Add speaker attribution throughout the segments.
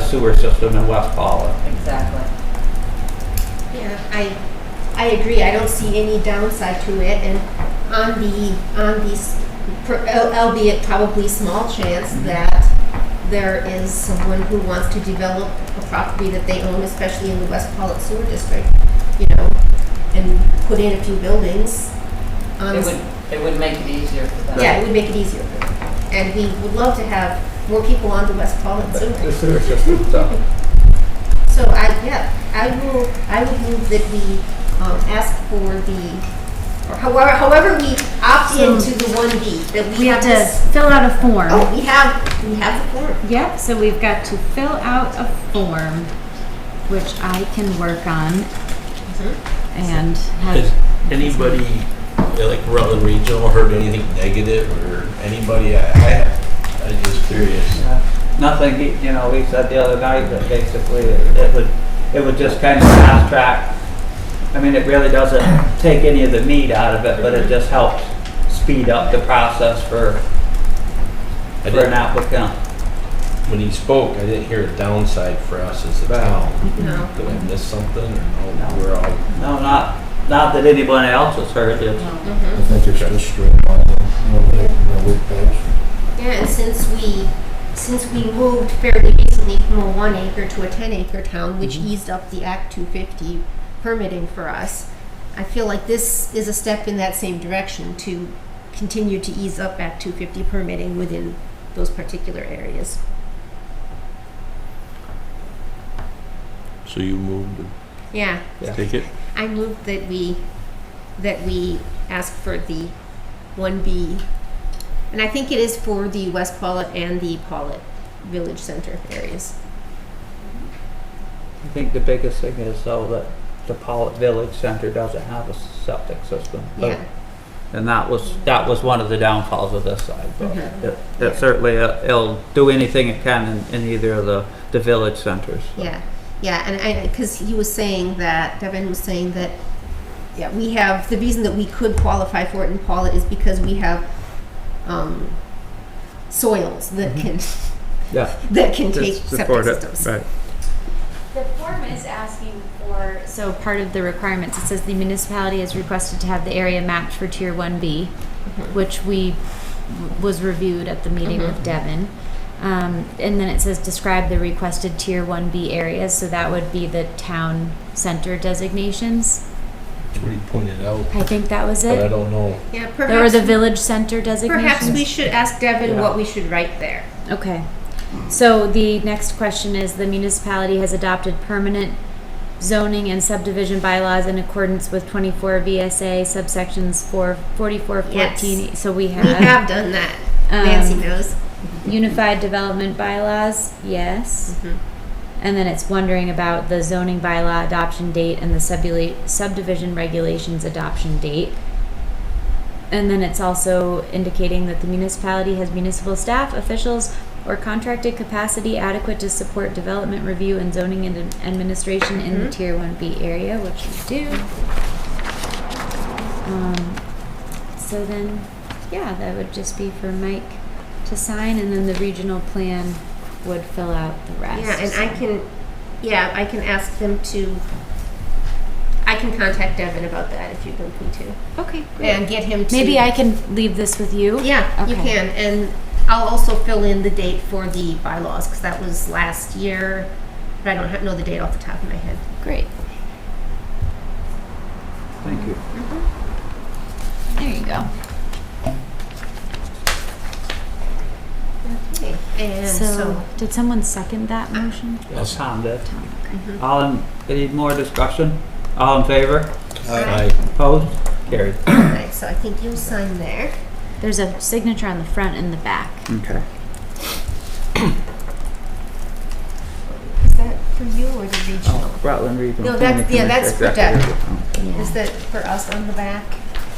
Speaker 1: sewer system in West Pollock.
Speaker 2: Exactly.
Speaker 3: Yeah, I, I agree, I don't see any downside to it, and on the, on these, albeit probably small chance that there is someone who wants to develop a property that they own, especially in the West Pollock Sewer District, you know, and put in a few buildings. on
Speaker 2: It would, it would make it easier for them.
Speaker 3: Yeah, it would make it easier for them. And we would love to have more people on the West Pollock Sewer.
Speaker 1: The sewer system, so.
Speaker 3: So I, yeah, I will, I would move that we um, ask for the, or however, however we opt
Speaker 4: So-
Speaker 3: into the one B, that we
Speaker 4: We have to
Speaker 3: this-
Speaker 4: fill out a form.
Speaker 3: Oh, we have, we have the form.
Speaker 4: Yep, so we've got to fill out a form, which I can work on
Speaker 5: Mm-hmm.
Speaker 4: and
Speaker 6: Has
Speaker 4: have,
Speaker 6: anybody, yeah, like Rutland Regional, heard anything negative or anybody? I, I, I'm just curious.
Speaker 1: uh, Nothing, he- you know, we said the other night that basically it it would, it would just kind of fast track. I mean, it really doesn't take any of the meat out of it, but it just helps speed up the process for, for
Speaker 6: I
Speaker 1: an
Speaker 6: didn't,
Speaker 1: applicant.
Speaker 6: when he spoke, I didn't hear a downside for us as a
Speaker 1: Right.
Speaker 6: town.
Speaker 3: No.
Speaker 6: Did I miss something or no?
Speaker 1: No.
Speaker 6: We're all.
Speaker 1: No, not, not that anyone else has heard it.
Speaker 3: Mhm.
Speaker 7: I think it's just straight line, no, no, no, we're past.
Speaker 3: Yeah, and since we, since we moved fairly recently from a one acre to a ten acre town, which eased up the Act two fifty permitting for us, I feel like this is a step in that same direction to continue to ease up Act two fifty permitting within those particular areas.
Speaker 6: So you moved and
Speaker 3: Yeah,
Speaker 6: take it?
Speaker 3: I move that we, that we ask for the one B. And I think it is for the West Pollet and the Pollet Village Center areas.
Speaker 1: I think the biggest thing is though that the Pollock Village Center doesn't have a septic system. but-
Speaker 3: Yeah.
Speaker 1: And that was, that was one of the downfalls of this side, but
Speaker 3: Mhm.
Speaker 1: it, it certainly, uh, it'll do anything it can in, in either of the, the village centers.
Speaker 3: Yeah, yeah, and I, because he was saying that, Devin was saying that, yeah, we have, the reason that we could qualify for it in Paula is because we have, um, soils that can,
Speaker 1: Yeah.
Speaker 3: that can take
Speaker 1: Just Mm-hmm.
Speaker 3: septic
Speaker 1: support it,
Speaker 3: systems.
Speaker 1: Right.
Speaker 5: The form is asking for, so part of the requirements, it says the municipality is requested to have the area mapped for tier one B, which we, was reviewed at the meeting with Devon. Um, and then it says describe the requested tier one B areas, so that would be the town center designations.
Speaker 6: That's what he pointed out,
Speaker 5: I think that was
Speaker 6: but I
Speaker 5: it.
Speaker 6: don't know.
Speaker 3: Yeah,
Speaker 5: There were the
Speaker 3: perhaps,
Speaker 5: village center designations.
Speaker 3: perhaps we should ask Devin
Speaker 6: Yeah.
Speaker 3: what we should write there.
Speaker 5: Okay. So the next question is, the municipality has adopted permanent zoning and subdivision bylaws in accordance with twenty-four VSA subsections four, forty-four, fourteen.
Speaker 3: Yes.
Speaker 5: So we
Speaker 3: We have
Speaker 5: have
Speaker 3: done that, Nancy
Speaker 5: Um,
Speaker 3: knows.
Speaker 5: unified development bylaws, yes.
Speaker 3: Mhm.
Speaker 5: And then it's wondering about the zoning bylaw adoption date and the subdivili- subdivision regulations adoption date. And then it's also indicating that the municipality has municipal staff, officials, or contracted capacity adequate to support development review and zoning and ad- administration in
Speaker 3: Mm-hmm.
Speaker 5: the Tier 1B area, which we do. Um, so then, yeah, that would just be for Mike to sign, and then the regional plan would fill out the rest.
Speaker 3: Yeah, and I can, yeah, I can ask them to, I can contact Devin about that if you'd like me to.
Speaker 5: Okay,
Speaker 3: And get him to.
Speaker 5: Maybe I can leave this with you.
Speaker 3: Yeah, you
Speaker 5: Okay.
Speaker 3: can, and I'll also fill in the date for the bylaws, because that was last year, but I don't ha- know the date off the top of my head.
Speaker 5: Great.
Speaker 1: Thank you.
Speaker 5: There you go.
Speaker 3: Okay. And
Speaker 5: So,
Speaker 3: so,
Speaker 5: did someone second that motion?
Speaker 1: Yes. Mm-hmm. Tom did.
Speaker 5: Tom, okay.
Speaker 1: All in, any more discussion? All in favor?
Speaker 7: Aye.
Speaker 1: Opposed? Carried.
Speaker 3: okay, so I think you'll sign there.
Speaker 5: There's a signature on the front and the back.
Speaker 1: Okay.
Speaker 3: Is that for you or the regional?
Speaker 1: Oh, Rutland Regional.
Speaker 3: No, that's-
Speaker 1: Planning
Speaker 3: yeah, that's for
Speaker 1: Commission,
Speaker 3: Doug.
Speaker 1: executive.
Speaker 5: Yeah.
Speaker 3: Is that for us on the back?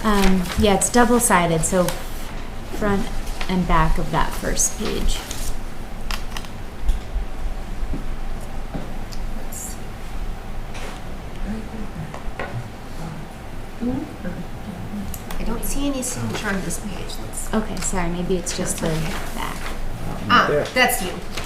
Speaker 5: Um, yeah, it's double sided, so front and back of that first page.
Speaker 3: Let's see. I don't see any signature on this page, let's,
Speaker 5: Okay, sorry, maybe it's just the
Speaker 3: Okay.
Speaker 5: back.
Speaker 3: ah, that's you.